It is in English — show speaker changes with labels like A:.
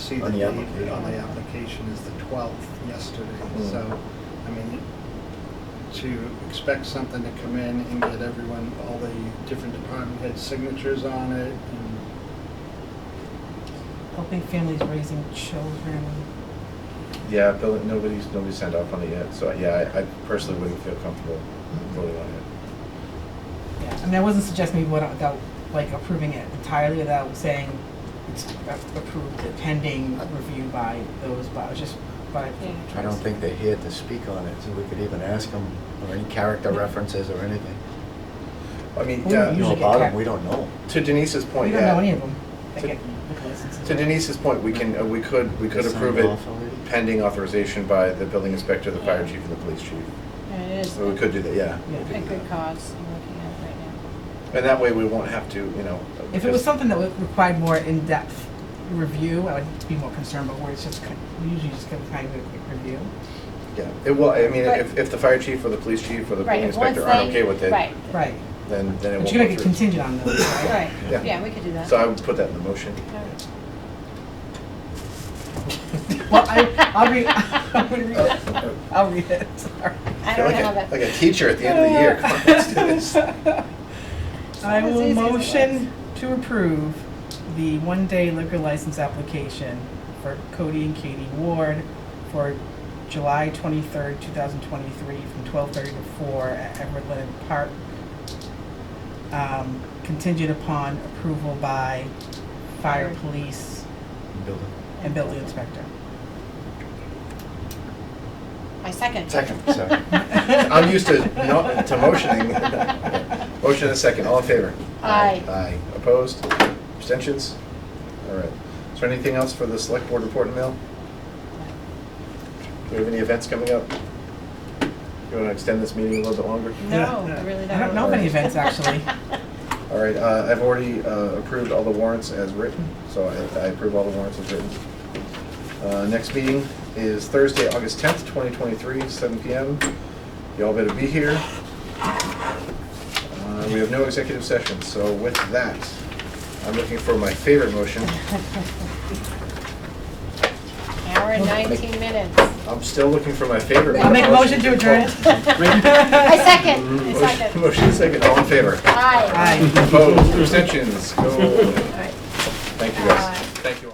A: see the
B: On the
A: date
B: application.
A: on the application is the 12th yesterday.
B: Mm.
A: So, I mean, to expect something to come in and get everyone, all the different department head signatures on it and
C: helping families raising children.
B: Yeah, Bill, nobody's, nobody's signed off on it yet, so yeah, I, I personally wouldn't feel comfortable voting on it.
C: Yeah, I mean, I wasn't suggesting we would without like approving it entirely without saying it's a- approved pending review by those, but I was just by.
D: Yeah.
E: I don't think they're here to speak on it, so we could even ask them, or any character references or anything.
B: I mean,
C: We
B: yeah,
E: You know
C: usually get
E: about them,
C: char-
E: we don't know.
B: to Denise's point,
C: We don't know any
B: yeah.
C: of them that
B: To-
C: get liquor licenses.
B: To Denise's point, we can, uh, we could, we could
E: Signed
B: approve it
E: off already?
B: pending authorization by the building inspector, the fire chief, and the police chief.
D: And it is
B: So we could do that, yeah. we
C: Yeah.
B: could
D: a
B: do
D: good
B: that.
D: cause I'm looking at it right now.
B: And that way, we won't have to, you know.
C: If it was something that would- required more in-depth review, I would be more concerned, but where it's just, kind- we usually just kind of kind of a quick review.
B: Yeah, it will, I mean,
D: But-
B: if, if the fire chief or the police chief or the
D: Right,
B: building
D: if once
B: inspector aren't
D: they-
B: okay with it,
D: Right,
C: Right,
B: then, then it won't
C: but you're
B: go
C: gonna get
B: through.
C: contingent on those, right?
D: right,
B: Yeah.
D: yeah, we could do that.
B: So I would put that in the motion.
D: Alright.
C: Well, I, I'll read, I'll read it. I'll read it, sorry.
D: I don't know
B: Uh, Like a-
D: how that.
B: Like a teacher at the end of the year, come on, let's do this.
C: I
D: It's as
C: will
D: easy as it
C: motion to approve the one-day liquor license application for Cody and Katie Ward for July twenty-third, two thousand twenty-three, from twelve-thirty to four at Everett Leonard Park. Um, contingent upon approval by fire,
D: Fire.
C: police,
E: Building.
C: and building inspector.
D: I second.
B: Second, sorry. I'm used to not, to motioning. Motion and a second, all in favor?
D: Aye.
B: Aye, opposed, abstentions? All right. Is there anything else for the select board report and mail? Do we have any events coming up? You want to extend this meeting a little bit longer?
D: No, I really don't.
C: I don't know
B: many
C: events, actually.
B: All right, uh, I've already uh, approved all the warrants as written, so I- I approve all the warrants as written. Uh, Next meeting is Thursday, August 10th, 2023, 7 PM. Y'all better be here. Uh, We have no executive session, so with that, I'm looking for my favorite motion.
D: Hour and nineteen minutes.
B: I'm still looking for my favorite.
C: I'll make a motion to adjourn.
D: I second, I
B: Motion-
D: second.
B: Motion second, all in favor?
D: Aye.
C: Aye.
B: Opposed, abstentions, go.
D: All right.
B: Thank you, guys.
D: Aye.
B: Thank you all.